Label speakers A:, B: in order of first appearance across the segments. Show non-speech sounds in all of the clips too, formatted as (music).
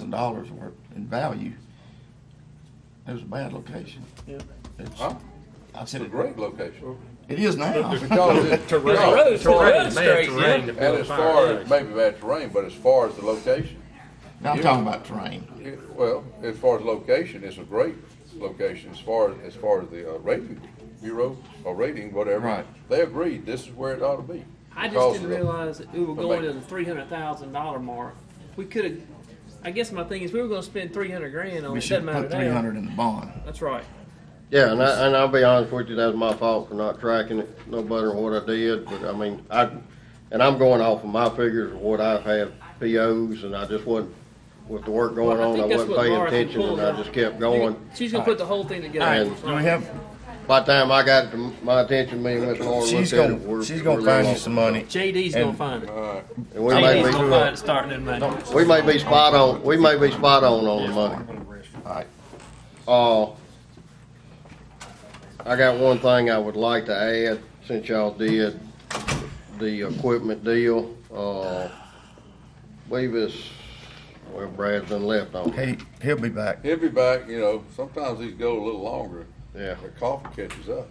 A: thousand dollars worth in value. It was a bad location.
B: Yep.
A: It's,
C: Huh?
A: I
C: It's
A: said
C: a
A: it,
C: great location.
A: it is now.
C: Because it-
D: Terrain.
C: no,
D: Roads, the
B: Terrain,
D: road's
B: bad
D: straight,
B: terrain
D: yeah.
B: to
C: And
B: build a
C: as far
B: fire.
C: as, maybe bad terrain, but as far as the location,
A: Now I'm talking about terrain.
C: it- well, as far as location, it's a great location. As far, as as far as the uh, rating bureau or rating, whatever,
A: Right.
C: they agreed, this is where it ought to be.
B: I just
C: Because
B: didn't
C: of the-
B: realize that we were
C: the
B: going to
C: bank.
B: the three hundred thousand dollar mark. We could have. I guess my thing is we were going to spend three hundred grand on
A: We
B: it. Doesn't
A: should
B: matter
A: put
B: now.
A: three hundred in the bond.
B: That's right.
E: Yeah, and I, and I'll be honest with you, that was my fault for not tracking it no better than what I did, but I mean, I, and I'm going off of my figures of what I've had POs, and I just wasn't, with the work going
B: Well, I
E: on,
B: think
E: I
B: that's
E: wasn't
B: what
E: paying
B: Laura can
E: attention,
B: pull
E: and I
B: out.
E: just kept going.
B: She's going to put the whole thing together.
E: Alright.
B: That's
A: Do
B: right.
A: we have,
E: By the time I got to my attention, me and Miss Laura
A: she's
E: looked at it,
A: gonna,
E: we're.
A: she's
E: we're
A: gonna find you
E: lost.
A: some money.
B: JD's
A: And-
B: going to find it.
E: And we may
B: JD's going to
E: be,
B: find it starting in May.
E: we may be spot on, we may be spot on on the money.
A: Alright,
E: Uh, I got one thing I would like to add, since y'all did the equipment deal, uh, believe it's, well, Brad's been left on, it.
A: he, he'll be back.
C: He'll be back, you know, sometimes these go a little longer,
E: yeah,
C: the coffee catches up.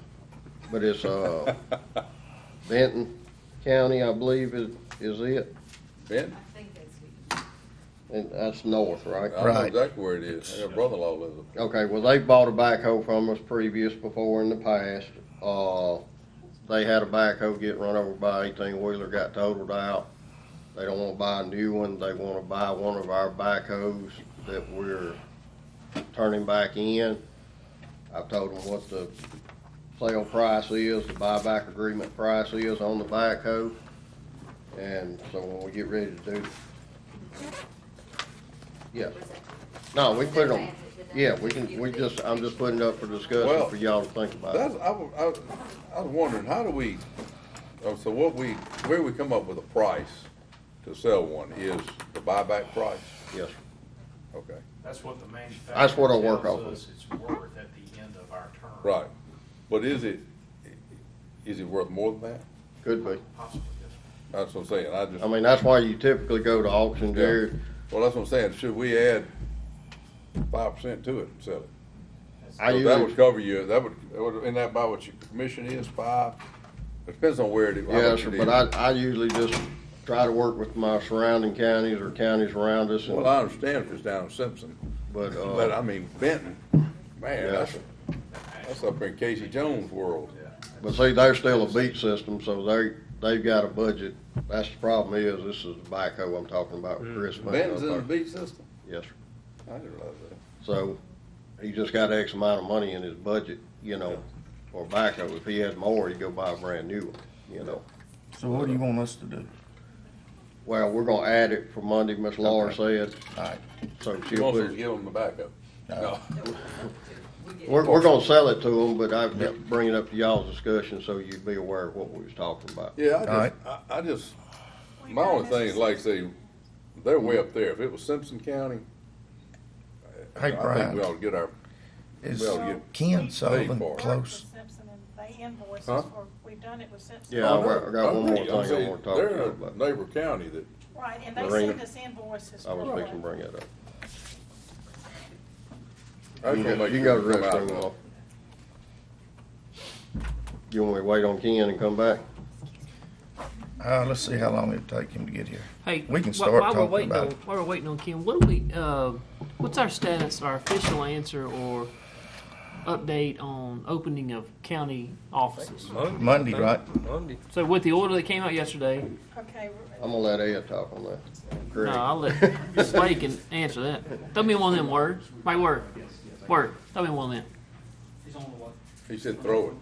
E: but it's, uh, Benton County, I believe is, is it,
C: Ben,
E: and that's north, right?
C: I know
A: Right.
C: exactly where it is, I got brother-in-law lives up
E: Okay, well, they bought a backhoe from us previous, before in the past. Uh, they had a backhoe get run over by eighteen wheeler, got totaled out. They don't wanna buy a new one, they wanna buy one of our backhoes that we're turning back in. I've told them what the sale price is, the buyback agreement price is on the backhoe. And so when we get ready to do. Yeah, no, we put it on, yeah, we can, we just, I'm just putting it up for
C: Well,
E: discussion for y'all to think about.
C: That's, I, wa- I, was- I was wondering, how do we, oh, so what we, where we come up with a price to sell one is the buyback price?
E: Yes, sir.
C: Okay,
F: That's what the manufacturer.
E: That's what I work
F: tells
E: off of.
F: us It's worth at the end of our term.
C: right. But is it, is it worth more than that?
E: could be.
F: Possibly, yes.
C: That's what I'm saying, I just,
E: I mean, that's why you typically go to auction, Jared.
C: well, that's what I'm saying, should we add five percent to it and sell it?
E: I
C: So That
E: usually,
C: would cover you, that would, that would- isn't that about what your commission is, five? It depends on where it is. how
E: yes,
C: much
E: sir,
C: it
E: but
C: is.
E: I, I usually just try to work with my surrounding counties or counties around us,
C: Well,
E: and-
C: I understand if it's down in Simpson.
E: but,
C: But I
E: uh,
C: mean Benton, man, that's, that's up in Casey Jones' world.
E: but see, they're still a beat system, so they, they've got a budget. That's the problem is, this is the backhoe I'm talking about, with Chris. Mann
C: Benton's in the
E: up there.
C: beat system?
E: Yes, sir.
C: I didn't realize
E: So, he just got X amount of money in his budget, you know, for backhoe. If he had more, he'd go buy a brand new one, you know.
A: So what do you want us to do?
E: Well, we're gonna add it for Monday, Miss Laura said,
A: Alright,
E: so
C: that. He
E: she'll
C: wants
E: put
C: us
E: it
C: to give him the backup.
E: (laughs)
C: No,
E: We're, we're gonna sell it to them, but I bring it up to y'all's discussion so you'd be aware of what we was talking about.
C: yeah, I
A: Alright.
C: just, I, I just, my only thing is like, say, they're way up there. If it was Simpson County, I
A: hey
C: think we
A: Brian,
C: ought to get our,
A: is
C: well, you-
A: Ken Sullivan
C: for it.
A: close?
G: Worked with Simpson and they invoice
C: Huh?
G: us for, we've done it with Simpson.
E: Yeah,
C: Oh, no,
E: I got one more
C: agree.
E: thing I
C: I'm saying
E: wanna talk to you about.
C: They're a neighbor county that,
G: Right, and they
E: Lorena.
G: send us invoices
E: I
G: for
E: was fixing to
G: it.
E: bring it up.
C: I
E: You
C: just wanna
E: can go-
C: make
E: you can go
C: sure
E: to
C: we come
E: the
C: out.
E: restroom. Laura. You want me to wait on Ken and come back?
A: Uh, let's see how long it'll take him to get here.
B: Hey,
A: We can
B: wh-
A: start
B: while we're
A: talking
B: waiting
A: about
B: on,
A: it.
B: While we're waiting on Ken, what do we? Uh, what's our status? Our official answer or update on opening of county offices?
A: Monday, right?
D: Monday.
B: So with the order that came out yesterday,
G: Okay, we're-
E: I'm gonna let Ed talk on that. Greg.
B: no, I'll let Slade can answer that. Throw me one of them words. My word, word. Throw me one of them.
C: He said throw it.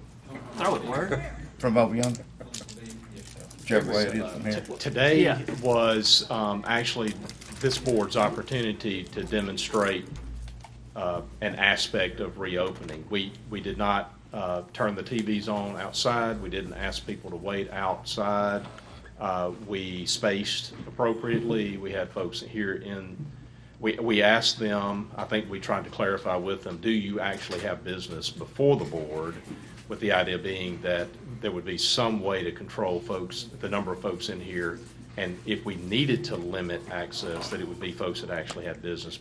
B: Throw it. Word.
A: From over yonder? Whichever way it is from here.
B: Yeah.
H: Today was um, actually this board's opportunity to demonstrate uh, an aspect of reopening. We, we did not uh, turn the TVs on outside, we didn't ask people to wait outside. Uh, We spaced appropriately, we had folks here in, we, we asked them, I think we tried to clarify with them, do you actually have business before the board? With the idea being that there would be some way to control folks, the number of folks in here, and if we needed to limit access, that it would be folks that actually had business